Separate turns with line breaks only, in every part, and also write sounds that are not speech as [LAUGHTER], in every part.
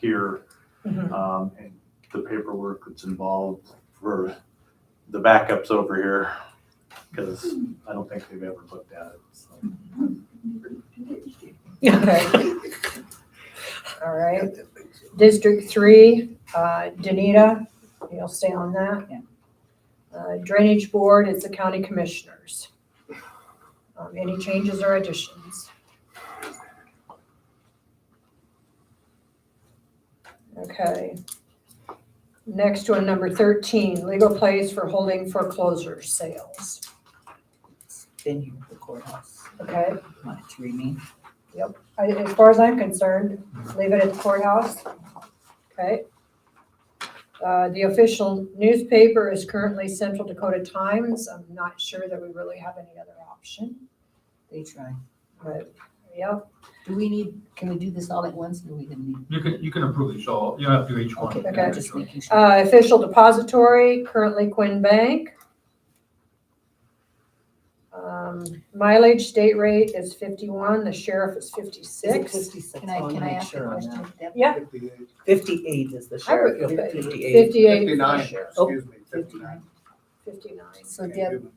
here,
Mhm.
um, and the paperwork that's involved for the backups over here, because I don't think they've ever looked at it, so.
Okay. All right. District three, uh, Danita, you'll stay on that. Uh, Drainage Board is the county commissioners. Um, Any changes or additions? Okay. Next one, number thirteen, legal place for holding foreclosure sales,
venue for the courthouse,
okay?
much, remain.
I- As far as I'm concerned, leave it at the courthouse. Okay. Uh, The official newspaper is currently Central Dakota Times. I'm not sure that we really have any other option,
They try.
but yeah.
Do we need, can we do this all at once? No, we didn't need.
You can, you can approve each, all, you have to do each one.
Okay,
Okay.
I'm just making sure.
Uh, Official depository, currently Quinn Bank. Um, Mileage state rate is 51, the sheriff is 56.
Can I, can I ask a question?
Yeah.
Fifty-eight is the
I
sheriff.
would-
58.
58 for the
Fifty-nine,
sheriff,
Oh,
excuse me, fifty-nine.
59.
So Deb,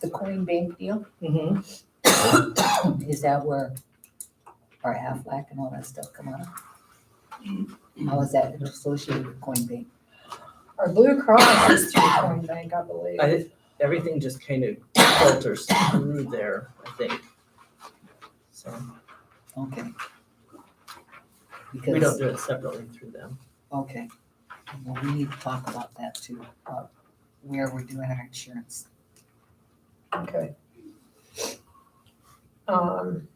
the coin bank deal,
Mhm.
is that where our Aflac and all that stuff come out of? How is that associated with coin bank?
Our Blue Cross is through Quinn Bank, I believe.
I, everything just kind of filters through there, I think. So
Okay.
we don't
Because,
do it separately through them.
okay, well, we need to talk about that too, about where we're doing our insurance.
Okay. Um,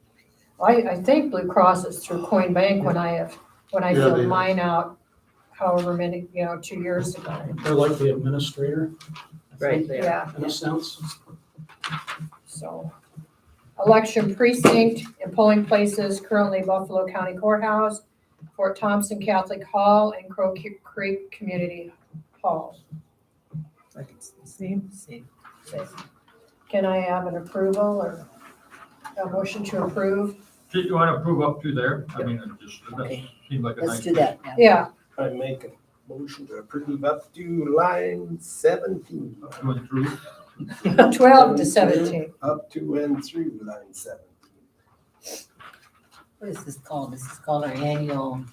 I, I think Blue Cross is through Coin Bank when I have, when I
Yeah,
filled
they-
mine out however many, you know, two years ago.
They're like the administrator,
Right there.
Yeah,
in a sense.
so. Election precinct and polling places currently Buffalo County Courthouse, Fort Thompson Catholic Hall, and Crow Ki- Creek Community Hall.
I can see.
See,
Can I have an approval or a motion to approve?
Do you want to approve up to there? I mean, it just, that
Okay,
seemed like a
let's
nice.
do that now. [LAUGHS]
Yeah,
I make a motion to approve up to line seventeen,
Going through,
twelve to seventeen.
up to and through line seventeen.
What is this called? This is called our annual.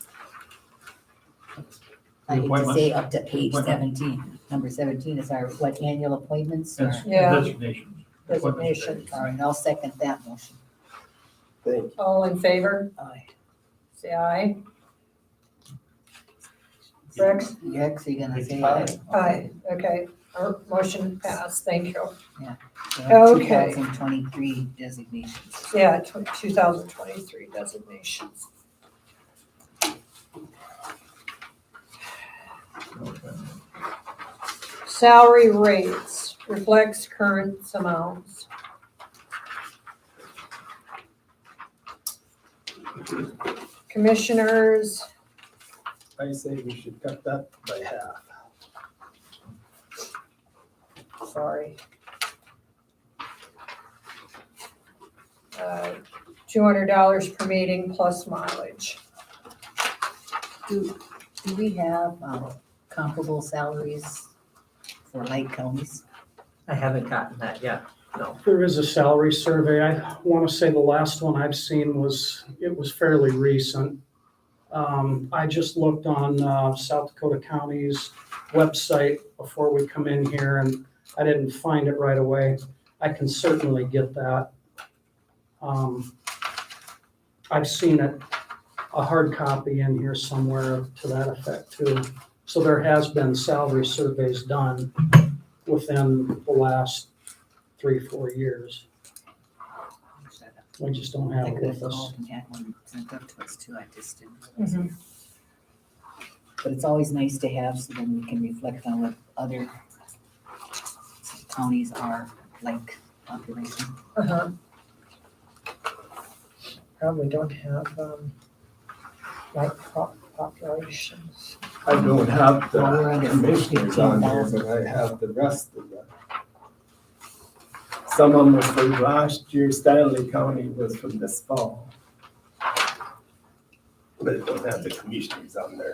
I hate to
Appointments?
say up to page
Appointment.
seventeen. Number seventeen is our, what, annual appointments? or-
that's
Yeah.
designation.
Designation.
All right, I'll second that motion.
Thank you.
All in favor?
Aye.
Say aye. Rex?
You're actually gonna say
Aye.
aye.
Aye, okay, our motion passed, thank you.
Two
Okay.
thousand twenty-three designations.
Yeah, two thousand twenty-three designations. Salary rates reflects current amounts. Commissioners,
I say we should cut that by half.
sorry. Uh, Two hundred dollars per meeting plus mileage.
Do, do we have um, comparable salaries for Lake counties?
I haven't gotten that yet.
There is a salary survey. I want to say the last one I've seen was, it was fairly recent. Um, I just looked on, uh, South Dakota County's website before we come in here and I didn't find it right away. I can certainly get that. Um, I've seen it, a hard copy in here somewhere to that effect too. So there has been salary surveys done within the last three, four years. We just don't have
I
it
could have
with us.
called and had one sent up to us too, I just didn't. realize it. But it's always nice to have, so then we can reflect on what other counties are like population.
Uh-huh. Probably don't have, um, like pop- populations.
I don't have
Well, we're
the
under
commissioners on here, but I have the rest of them. Some of them were from last year, Stanley County was from this fall. but it don't have the commissioners on there.